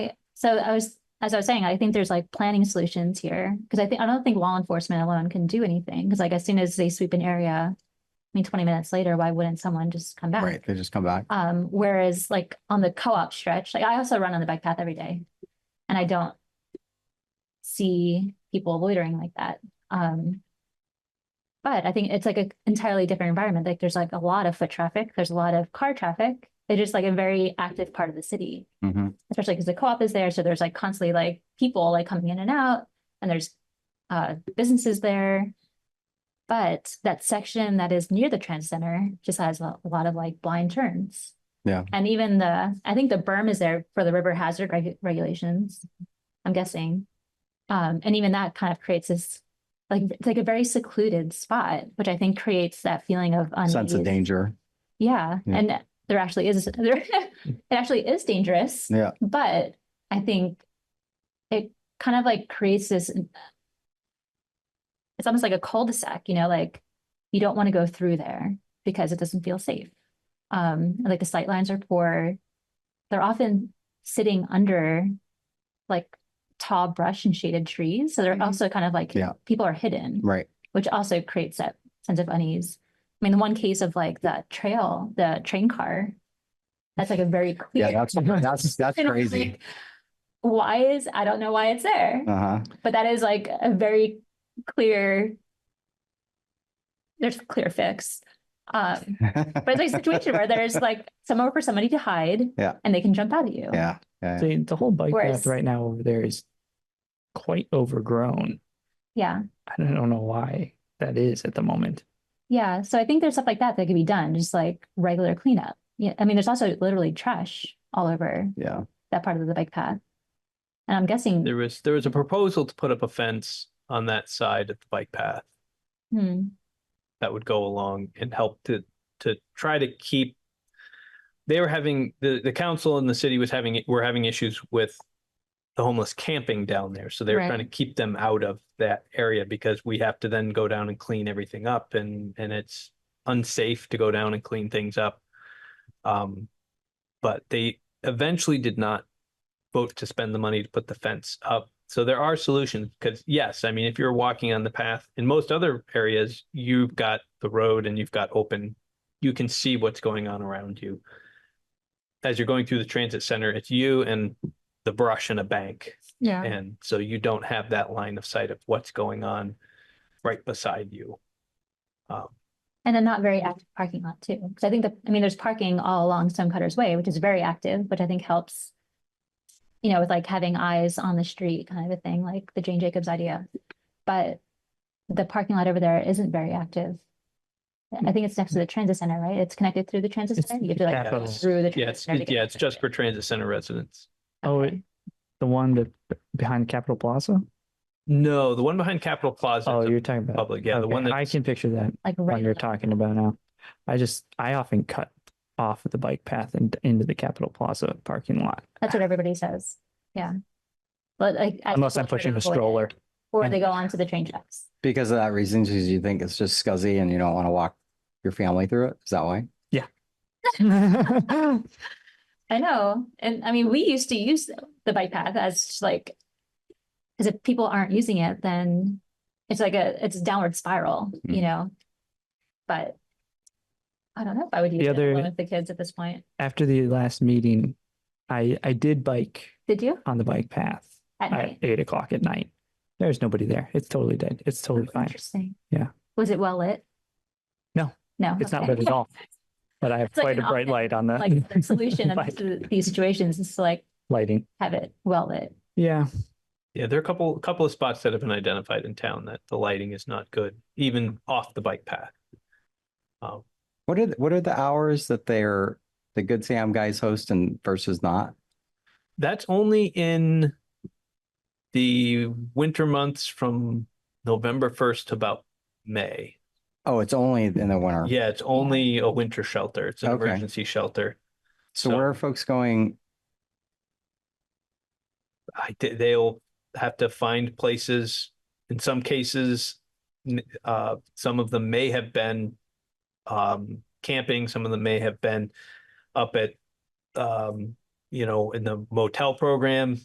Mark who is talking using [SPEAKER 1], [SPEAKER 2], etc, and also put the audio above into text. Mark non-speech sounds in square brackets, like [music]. [SPEAKER 1] So I was, as I was saying, I think there's like planning solutions here, because I think, I don't think law enforcement alone can do anything, because like as soon as they sweep an area, I mean, twenty minutes later, why wouldn't someone just come back?
[SPEAKER 2] Right, they just come back.
[SPEAKER 1] Um, whereas like on the co-op stretch, like I also run on the bike path every day. And I don't see people loitering like that. Um. But I think it's like an entirely different environment. Like there's like a lot of foot traffic, there's a lot of car traffic. It's just like a very active part of the city,
[SPEAKER 2] Mhm.
[SPEAKER 1] especially because the co-op is there. So there's like constantly like people like coming in and out and there's uh businesses there. But that section that is near the trans center just has a lot of like blind turns.
[SPEAKER 2] Yeah.
[SPEAKER 1] And even the, I think the berm is there for the river hazard reg- regulations, I'm guessing. Um, and even that kind of creates this, like, it's like a very secluded spot, which I think creates that feeling of
[SPEAKER 2] Sense of
[SPEAKER 1] unease.
[SPEAKER 2] danger.
[SPEAKER 1] Yeah,
[SPEAKER 2] Yeah.
[SPEAKER 1] and there actually is, [laughs] there, it actually is dangerous.
[SPEAKER 2] Yeah.
[SPEAKER 1] But I think it kind of like creates this. mm, It's almost like a cul-de-sac, you know, like you don't want to go through there because it doesn't feel safe. Um, and, like the sight lines are poor. They're often sitting under like tall brush and shaded trees. So they're
[SPEAKER 3] Mhm.
[SPEAKER 1] also kind of like
[SPEAKER 2] Mm-hmm. Yeah.
[SPEAKER 1] people are hidden
[SPEAKER 2] Right.
[SPEAKER 1] which also creates that sense of unease. I mean, the one case of like the trail, the train car, that's like a very clear.
[SPEAKER 2] Yeah,
[SPEAKER 1] [laughs]
[SPEAKER 2] that's, that's, that's
[SPEAKER 1] And I'm
[SPEAKER 2] crazy.
[SPEAKER 1] like, Why is, I don't know why it's there,
[SPEAKER 2] Uh huh.
[SPEAKER 1] but that is like a very clear, there's a clear fix. Um, but it's like a
[SPEAKER 2] [laughs]
[SPEAKER 1] situation where there's like somewhere for somebody to hide.
[SPEAKER 2] Yeah.
[SPEAKER 1] And they can jump out at you.
[SPEAKER 2] Yeah, yeah.
[SPEAKER 3] The, the whole bike
[SPEAKER 1] Whereas-
[SPEAKER 3] path right now over there is quite overgrown.
[SPEAKER 1] Yeah.
[SPEAKER 3] I don't know why that is at the moment.
[SPEAKER 1] Yeah, so I think there's stuff like that that could be done, just like regular cleanup. Yeah, I mean, there's also literally trash all over
[SPEAKER 2] Yeah.
[SPEAKER 1] that part of the bike path. And I'm guessing,
[SPEAKER 4] There was, there was a proposal to put up a fence on that side of the bike path
[SPEAKER 1] hmm,
[SPEAKER 4] that would go along and help to, to try to keep. They were having, the, the council and the city was having, were having issues with the homeless camping down there. So they were
[SPEAKER 1] Right.
[SPEAKER 4] trying to keep them out of that area because we have to then go down and clean everything up and, and it's unsafe to go down and clean things up. Um, but they eventually did not vote to spend the money to put the fence up. So there are solutions because yes, I mean, if you're walking on the path in most other areas, you've got the road and you've got open, you can see what's going on around you. As you're going through the transit center, it's you and the brush and a bank.
[SPEAKER 1] Yeah.
[SPEAKER 4] And so you don't have that line of sight of what's going on right beside you. Um,
[SPEAKER 1] and a not very active parking lot too. Because I think that, I mean, there's parking all along Stonecutters Way, which is very active, which I think helps, you know, with like having eyes on the street kind of a thing, like the Jane Jacobs idea. But the parking lot over there isn't very active. I think it's next to the transit center, right? It's connected through the transit
[SPEAKER 3] It's
[SPEAKER 1] center. You have to like
[SPEAKER 3] capital.
[SPEAKER 1] go through the.
[SPEAKER 4] yeah,
[SPEAKER 1] transit
[SPEAKER 4] it's,
[SPEAKER 1] center to get
[SPEAKER 4] yeah,
[SPEAKER 1] to
[SPEAKER 4] it's
[SPEAKER 1] the
[SPEAKER 4] just for
[SPEAKER 1] transit.
[SPEAKER 4] transit center residents.
[SPEAKER 3] Oh,
[SPEAKER 1] Okay.
[SPEAKER 3] it- the one that behind Capitol Plaza?
[SPEAKER 4] No, the one behind Capitol Plaza.
[SPEAKER 3] Oh,
[SPEAKER 4] is a-
[SPEAKER 3] you're talking about.
[SPEAKER 4] public, yeah, the
[SPEAKER 3] okay,
[SPEAKER 4] one
[SPEAKER 3] I
[SPEAKER 4] that's-
[SPEAKER 3] can picture that
[SPEAKER 1] Like
[SPEAKER 3] one
[SPEAKER 1] right.
[SPEAKER 3] you're
[SPEAKER 1] on the-
[SPEAKER 3] talking about now. I just, I often cut off the bike path and into the Capitol Plaza parking lot.
[SPEAKER 1] That's what everybody says. Yeah. But like. I-
[SPEAKER 3] Unless I'm
[SPEAKER 1] people try to
[SPEAKER 3] pushing a
[SPEAKER 1] avoid it,
[SPEAKER 3] stroller.
[SPEAKER 1] Or they go onto the train tracks.
[SPEAKER 2] Because of that reason, because you think it's just scuzzy and you don't want to walk your family through it. Is that why?
[SPEAKER 1] [laughs] I know. And I mean, we used to use the bike path as just, like, because if people aren't using it, then it's like a, it's a downward spiral,
[SPEAKER 3] Mm-hmm.
[SPEAKER 1] you know? But I don't know if I would use
[SPEAKER 3] The
[SPEAKER 1] it
[SPEAKER 3] other-
[SPEAKER 1] alone with the kids at this point.
[SPEAKER 3] [laughs] After the last meeting, I, I did bike
[SPEAKER 1] Did you?
[SPEAKER 3] on the bike path
[SPEAKER 1] At
[SPEAKER 3] at
[SPEAKER 1] night?
[SPEAKER 3] eight o'clock at night. There's nobody there. It's totally dead. It's totally fine.
[SPEAKER 1] Interesting.
[SPEAKER 3] Yeah.
[SPEAKER 1] Was it well lit?
[SPEAKER 3] No.
[SPEAKER 1] No.
[SPEAKER 3] It's not
[SPEAKER 1] okay.
[SPEAKER 3] lit at
[SPEAKER 1] [laughs]
[SPEAKER 3] all. But I have
[SPEAKER 1] It's like
[SPEAKER 3] quite a
[SPEAKER 1] an
[SPEAKER 3] bright
[SPEAKER 1] option,
[SPEAKER 3] light on
[SPEAKER 1] [laughs]
[SPEAKER 3] the.
[SPEAKER 1] Like the solution
[SPEAKER 3] [laughs]
[SPEAKER 1] of
[SPEAKER 3] bike
[SPEAKER 1] th- these situations is to like
[SPEAKER 3] Lighting.
[SPEAKER 1] have it well lit.
[SPEAKER 3] Yeah.
[SPEAKER 4] Yeah, there are a couple, couple of spots that have been identified in town that the lighting is not good, even off the bike path. Um,
[SPEAKER 2] What are, the- what are the hours that they're, the Good Sam guys host and versus not?
[SPEAKER 4] that's only in the winter months from November first to about May.
[SPEAKER 2] Oh, it's only in the winter.
[SPEAKER 4] Yeah, it's only a winter shelter. It's an
[SPEAKER 2] Okay.
[SPEAKER 4] emergency shelter.
[SPEAKER 2] So where are folks going?
[SPEAKER 4] I, thi- they'll have to find places, in some cases, n- uh, some of them may have been um, camping, some of them may have been up at, um, you know, in the motel program,